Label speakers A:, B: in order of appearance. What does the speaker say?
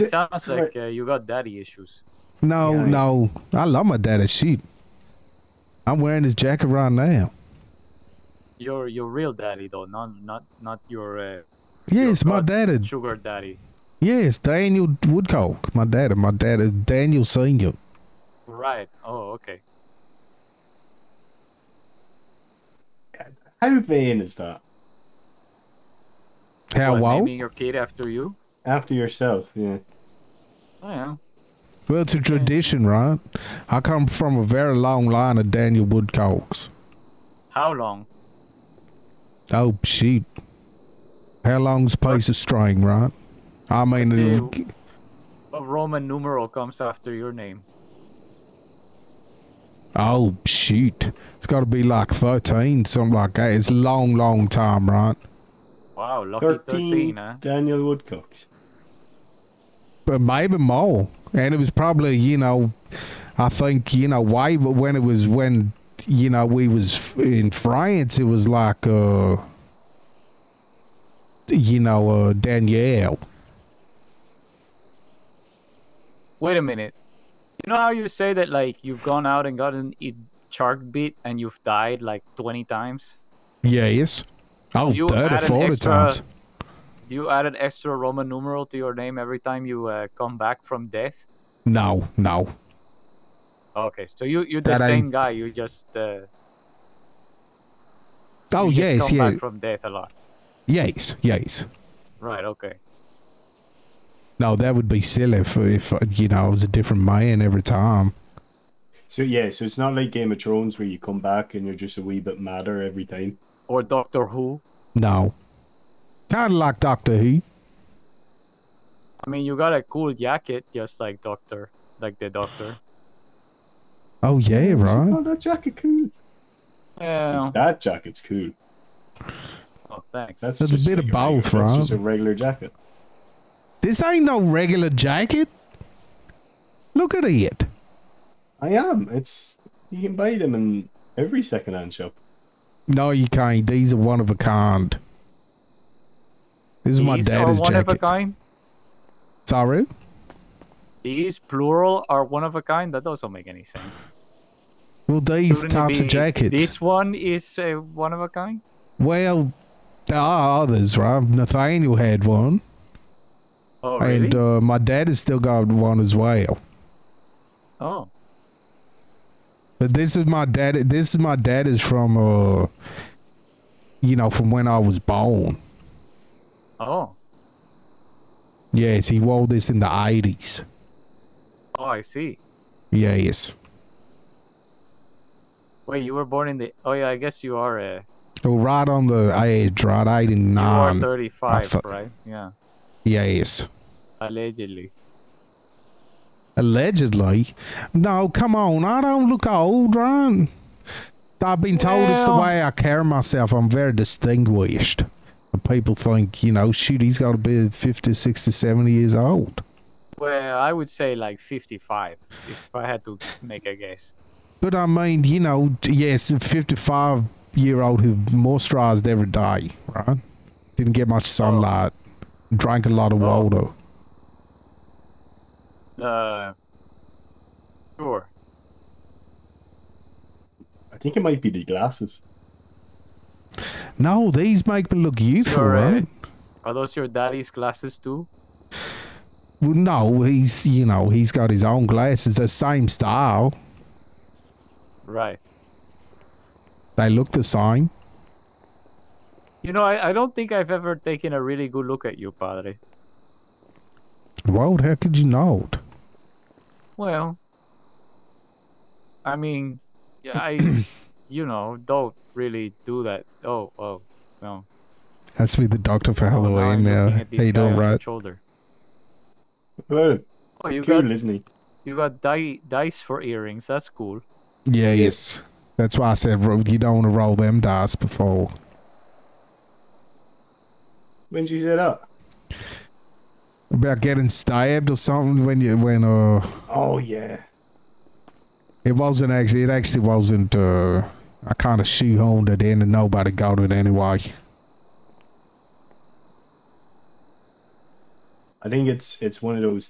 A: It sounds like uh, you got daddy issues.
B: No,
C: Yeah, I-
B: no. I love my daddy shit. I'm wearing this jacket right now.
A: Your your real daddy though, not not not your uh, Your
B: Yes, my
A: God.
B: daddy.
A: sugar daddy.
B: Yes, Daniel Woodcock. My daddy. My daddy, Daniel Senior.
A: Right. Oh, okay.
C: How vain is that?
B: How
A: What,
B: well?
A: Naming your kid after you?
C: After yourself, yeah.
A: Oh yeah.
B: Well, it's a tradition, right? I come from a very long line of Daniel Woodcocks.
A: How long?
B: Oh shit! How long's a piece of string, right? I mean, it'll-
A: Dude. What Roman numeral comes after your name?
B: oh shit! It's got to be like thirteen, something like that. It's a long, long time, right?
A: Wow, lucky
C: 13,
A: 13 huh?
C: Daniel Woodcocks.
B: but maybe more. And it was probably, you know, I think, you know, why but when it was when, you know, we was f- in France, it was like, uh, you know, uh, Danielle.
A: Wait a minute. You know how you say that like you've gone out and gotten a shark bit and you've died like 20 times?
B: Yes. Oh,
A: You
B: 30,
A: add an
B: 40
A: extra-
B: times.
A: Do you add an extra Roman numeral to your name every time you uh, come back from death?
B: No, no.
A: Okay, so you you're the
B: That
A: same
B: ain't-
A: guy. You just uh,
B: Oh,
A: you just
B: yes,
A: come
B: yeah,
A: back from death a lot.
B: yes, yes.
A: Right. Okay.
B: No, that would be silly if, if, uh, you know, I was a different man every time.
C: So yeah, so it's not like Game of Thrones where you come back and you're just a wee bit madder every time.
A: Or Doctor Who.
B: No. Kind of like Doctor Who.
A: I mean, you got a cool jacket, just like Doctor, like the Doctor.
B: Oh, yeah, right.
C: Oh, that jacket cool.
A: Yeah.
C: That jacket's cool.
A: Oh, thanks.
C: That's,
B: That's a
C: just
B: bit
C: like
B: of both,
C: regular- That's
B: right?
C: just a regular jacket.
B: This ain't no regular jacket. Look at it.
C: I am. It's you can buy them in every second-hand shop.
B: No, you can't. These are one of a kind. This is my
A: These are
B: dad's
A: one of a
B: jacket.
A: kind.
B: Sorry?
A: These plural are one of a kind. That doesn't make any sense.
B: Well, these
A: Shouldn't it
B: types of
A: be
B: jackets.
A: This one is uh, one of a kind.
B: Well, there are others, right? Nathaniel had one,
A: Oh really?
B: and uh, my dad has still got one as well.
A: oh.
B: But this is my dad. This is my dad is from, uh, you know, from when I was born.
A: Oh.
B: Yes, he wore this in the eighties.
A: Oh, I see.
B: Yes.
A: Wait, you were born in the. Oh yeah, I guess you are. Uh,
B: Oh, right on the edge, right? 89.
A: you are 35,
B: thought-
A: right? Yeah.
B: Yes.
A: Allegedly.
B: Allegedly. No, come on. I don't look old, right? I've been told it's the
A: Well-
B: way I carry myself. I'm very distinguished. And People think, you know, shoot, he's got to be 50, 60, 70 years old.
A: Well, I would say like 55 if I had to make a guess.
B: But I mean, you know, yes, a 55 year old who moisturized every day, right? Didn't get much sunlight, drank a lot of
A: Oh.
B: water.
A: Uh, sure.
C: I think it might be the glasses.
B: No, these make me look youthful,
A: Sure, uh,
B: right?
A: Are those your daddy's glasses too?
B: Well, no, he's you know he's got his own glasses, the same style.
A: Right.
B: They look the same.
A: You know, I, I don't think I've ever taken a really good look at you, Padre.
B: Well, how could you know? it?
A: Well, I mean, yeah, I, you know, don't really do that. Oh, oh, no.
B: That's with the doctor for
A: Oh, now I'm
B: Halloween now.
A: looking
B: How
A: at this
B: you
A: guy
B: doing,
A: on the
B: right?
A: Shoulder.
C: Well,
A: Oh, you
C: it's
A: got
C: cool, isn't he?
A: you got di- dice for earrings. That's cool.
B: Yeah, yes. That's why I said ro- you don't want to roll them dice before.
C: When did you say that?
B: About getting stabbed or something when you when uh
C: Oh yeah.
B: it wasn't actually it actually wasn't uh I kind of shoehorned it in and nobody got it anyway.
C: I think it's it's one of those